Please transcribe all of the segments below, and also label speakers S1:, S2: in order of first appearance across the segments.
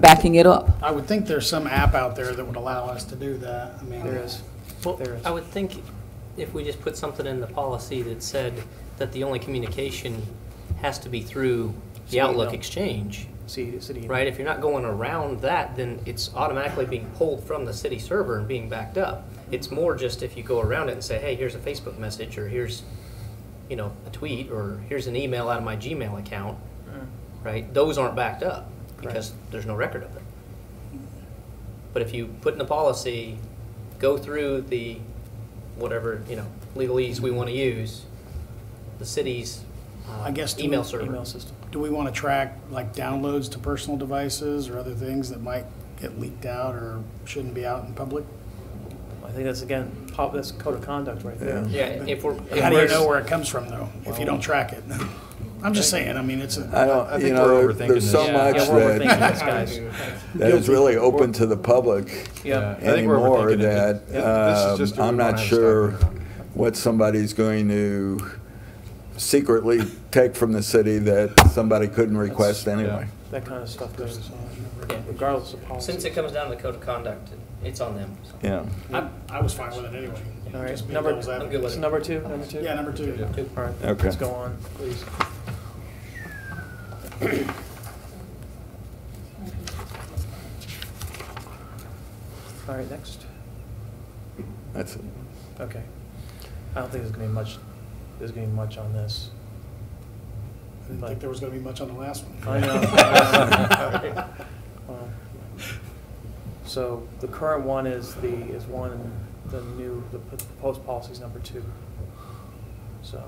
S1: backing it up.
S2: I would think there's some app out there that would allow us to do that. I mean,
S3: There is.
S4: Well,
S3: There is.
S4: I would think if we just put something in the policy that said that the only communication has to be through the
S3: Email.
S4: Outlook Exchange,
S3: See, city.
S4: right? If you're not going around that, then it's automatically being pulled from the city server and being backed up. It's more just if you go around it and say, hey, here's a Facebook message, or here's, you know, a tweet, or here's an email out of my Gmail account, right? Those aren't backed up because there's no record of it. But if you put in the policy, go through the, whatever, you know, legalese we want to use, the city's uh,
S2: I guess do
S4: email
S2: we-
S4: server.
S3: Email system.
S2: Do we want to track like downloads to personal devices or other things that might get leaked out or shouldn't be out in public?
S3: I think that's again, pop, that's code of conduct right there.
S4: Yeah, if we're. if
S2: How do you
S4: we're-
S2: know where it comes from though, if you don't track it? I'm just saying, I mean, it's a,
S5: I
S6: I
S5: don't,
S6: think
S5: you know,
S6: we're
S5: there-
S6: overthinking
S5: there's so
S6: this.
S3: Yeah,
S5: much
S3: we're overthinking
S5: that,
S3: this, guys.
S5: that is really open to the public
S3: Yeah.
S6: I think we're
S5: anymore
S6: overthinking
S5: that
S6: it. Yeah, this is just
S5: um,
S6: a
S5: I'm
S6: one
S5: not
S6: item
S5: sure
S6: stop.
S5: what somebody's going to secretly take from the city that somebody couldn't request anyway.
S3: That kind of stuff goes, regardless of policy.
S4: Since it comes down to the code of conduct, it's on them. so.
S5: Yeah.
S2: I, I was fine with it anyway.
S3: All
S2: Just
S3: right,
S2: being
S3: number,
S2: devil's advocate.
S4: I'm good with it.
S3: number two, number two?
S2: Yeah, number two.
S3: All right,
S5: Okay.
S3: let's go on, please. All right, next.
S5: That's it.
S3: Okay. I don't think there's gonna be much, there's gonna be much on this.
S2: I didn't think there was going to be much on the last one.
S3: I know. Well, Uh, So the current one is the, is one, and the new, the proposed policy is number two. So,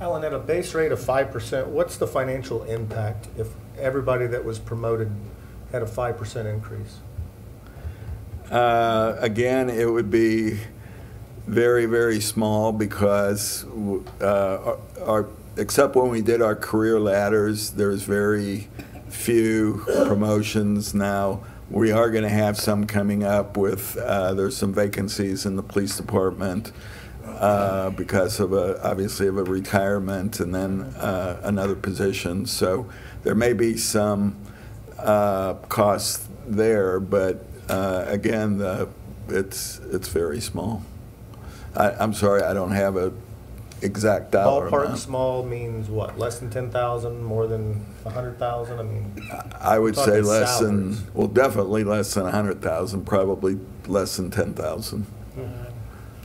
S7: Alan, at a base rate of five percent, what's the financial impact if everybody that was promoted had a five percent increase?
S5: Uh, Again, it would be very, very small because, w- uh, our- our, except when we did our career ladders, there's very few promotions now. We are going to have some coming up with, uh, there's some vacancies in the police department uh, because of a, obviously of a retirement and then uh, another position. So there may be some uh, costs there, but uh, again, the- it's, it's very small. I, I'm sorry, I don't have a exact dollar
S7: Ballpark
S5: amount.
S7: small means what? Less than ten thousand, more than a hundred thousand? I mean,
S5: I would say
S7: talking
S5: less than,
S7: salaries.
S5: well, definitely less than 100,000, probably less than 10,000.
S3: uh,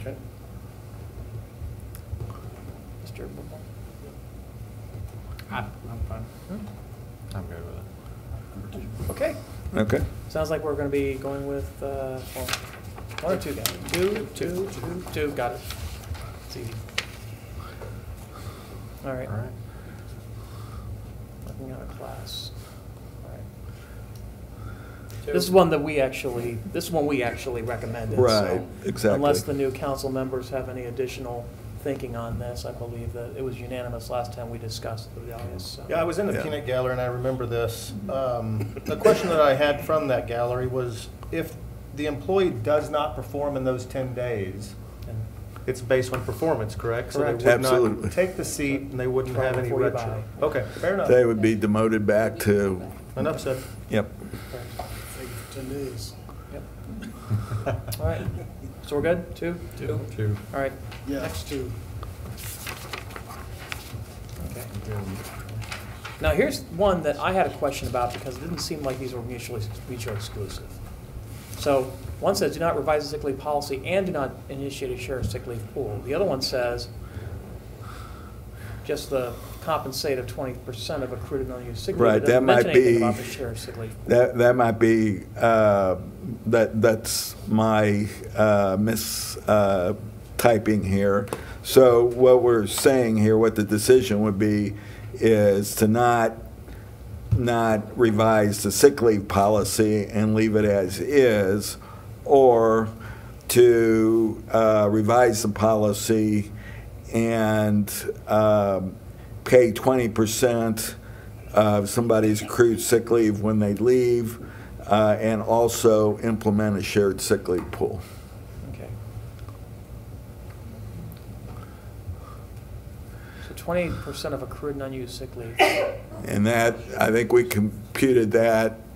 S3: okay. Mr. Bumbleton?
S6: I'm good with it.
S3: Okay,
S5: Okay.
S3: sounds like we're gonna be going with, uh, well, one or two, guys. Two, two, two, two, got it. It's easy. All right.
S6: All right.
S3: Looking at a class. All right. This is one that we actually, this is one we actually recommended. so
S5: Right, exactly.
S3: Unless the new council members have any additional thinking on this, I believe that it was unanimous last time we discussed the values, so.
S7: Yeah, I was in the
S5: Yeah.
S7: peanut gallery and I remember this. Um, The question that I had from that gallery was if the employee does not perform in those ten days,
S3: And
S7: it's based on performance, correct? So they
S3: Correct.
S7: would
S5: Absolutely.
S7: not take the seat and they wouldn't
S3: Try
S7: have any
S3: before you
S7: retro. Okay, fair
S5: They
S7: enough.
S5: would be demoted back to,
S7: Enough said.
S5: yep.
S2: Thank you for 10 days.
S3: All right, so we're good, two? Two.
S6: Two.
S3: All right,
S2: Yeah, that's two.
S3: okay. Now, here's one that I had a question about because it didn't seem like these were mutually, mutually exclusive. So one says, do not revise the sick leave policy and do not initiate a shared sick leave pool. The other one says, just the compensate of twenty percent of accrued and unused sick leave. It
S5: Right, that
S3: doesn't mention
S5: might
S3: anything
S5: be-
S3: About the shared sick leave.
S5: That, that might be, uh, that, that's my uh, mis uh, typing here. So what we're saying here, what the decision would be, is to not, not revise the sick leave policy and leave it as is, or to uh, revise the policy and um, pay 20% of somebody's accrued sick leave when they leave, uh, and also implement a shared sick leave pool.
S3: Okay. So twenty percent of accrued and unused sick leave.
S5: And that, I think we computed that